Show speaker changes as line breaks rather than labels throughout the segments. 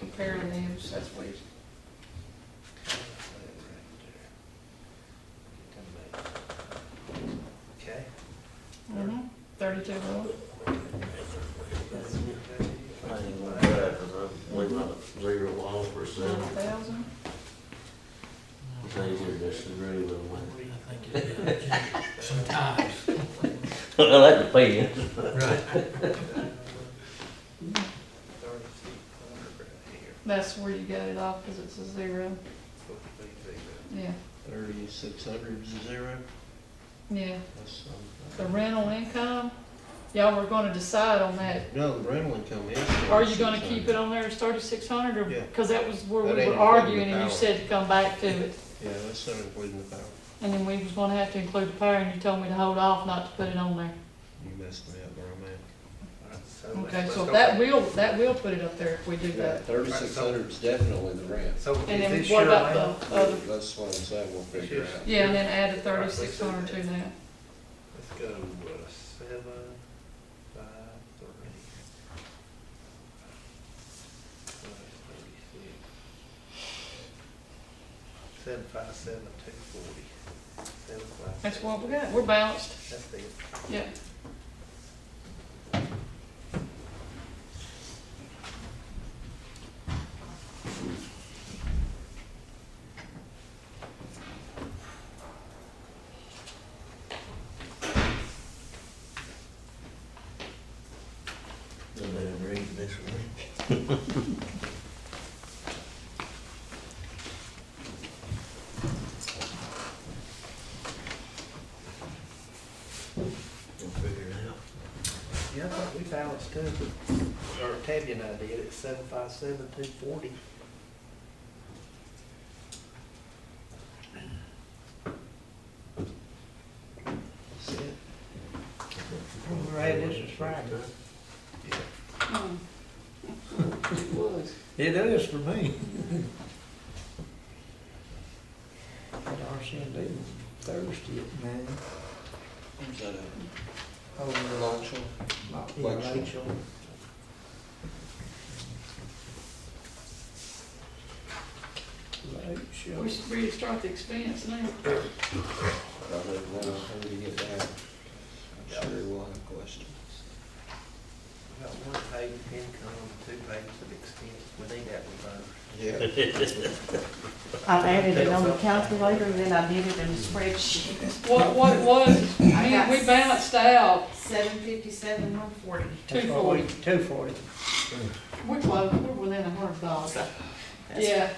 repair and use, that's what he's,
Okay.
mhm, thirty-two road.
I ain't gonna do that, 'cause I- we might zero one percent.
Nine thousand.
They would disagree with me.
I think it is. Sometimes,
Well, that depends.
right.
Thirty feet corner right here,
That's where you got it off, cause it's a zero,
supposed to be zero.
yeah,
Thirty-six hundred zero,
yeah.
that's
The
something.
rental income, y'all were gonna decide on that.
No, the rental income is.
Are you gonna keep it on there as thirty-six hundred,
Yeah.
or, cause that was where
That
we
ain't
were
including
arguing,
the
and you
power.
said to come back to it.
Yeah, that's not including the power,
And then we was gonna have to include the power, and you told me to hold off not to put it on there.
you messed me up, bro, man.
Alright, so let's-
Okay,
let's
so
go
that
back.
will, that will put it up there if we do that.
Thirty-six hundred is definitely the rent,
So is
And then
this
what
your
about
land?
the other,
that's what I'm saying, we'll figure it out.
Oh. yeah, and then add the thirty-six hundred to that.
Let's go uh, seven, five, three. Five, thirty-six. Seven, five, seven, two, forty. Seven, five.
That's
seven.
what we got, we're balanced,
That's the,
yeah.
They better read this one. We'll figure it out.
yeah, I thought we balanced too, but- or Tabby and I did, it's seven, five, seven, two, forty. That's it. Right, this is Friday.
Hmm. It was.
It is for me.
At RCND Thursday at noon,
Is that a
over
launch one?
at
Lecture.
Rachel.
We
Rachel.
should restart the expense now.
I don't know, when we get back, I'm sure we'll have questions.
Got one page of income, two pages of expense, we need that revised.
Yeah.
I added it on the calculator, and then I did it in a spreadsheet.
What, what it was, we, we balanced out
Seven fifty-seven, one forty.
two forty.
Two forty.
We're close, we're within a hundred dollars. Yeah,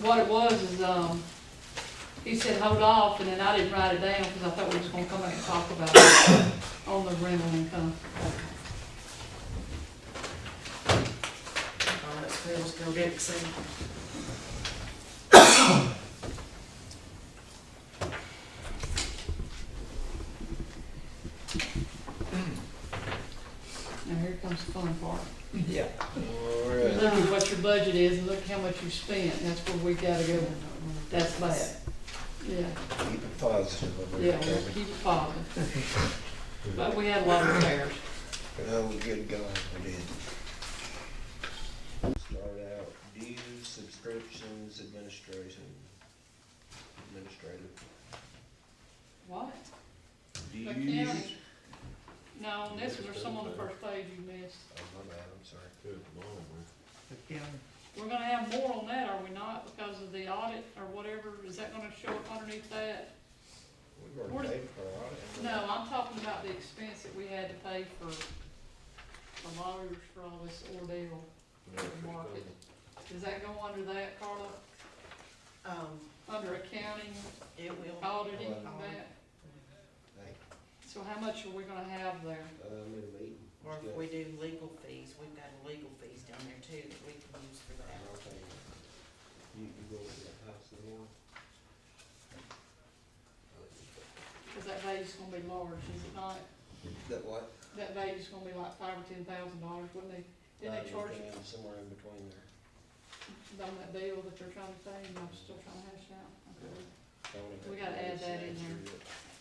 what it was is, um, he said, hold off, and then I didn't write it down, because I thought we was gonna come back and talk about it on the rental income.
Oh, that's good, let's go get it, see.
Now, here comes the fun part.
Yeah.
All
You
right.
Look at what your budget is, and look how much you spent, that's where we gotta go, that's bad. Yeah,
Keep it positive. over there,
yeah, we'll
Toby.
keep it positive. But we had a lot of repairs.
Oh, good God, we did. Start out dues, subscriptions, administration, administrative.
What? The
Dues.
county? No, this was some on the first page you missed.
Oh, my bad, I'm sorry.
Good morning.
We're gonna have more on that, are we not, because of the audit or whatever, is that gonna show up underneath that?
We've already paid for our audit. haven't we?
No, I'm talking about the expense that we had to pay for the lawyers for all this ordeal
Yeah,
with the market. Does that go under that, Carla,
Um,
under accounting,
it will. Um,
auditing, and that?
Thank
So how much are we gonna have there?
you. Uh, I'm in a meeting.
Or if we do legal fees, we've got legal fees down there too that we can use for that.
I'll pay you. You, you go over that house in the morning?
Cause that value's gonna be large, is it not?
That what?
That value's gonna be like five or ten thousand dollars, wouldn't they? Didn't they
Nine or
charge you
ten, Somewhere in between there.
on that deal that they're trying to pay, and I'm still trying to hash out? Okay.
Tony
We
had
gotta add
to
that in
answer
there.
it.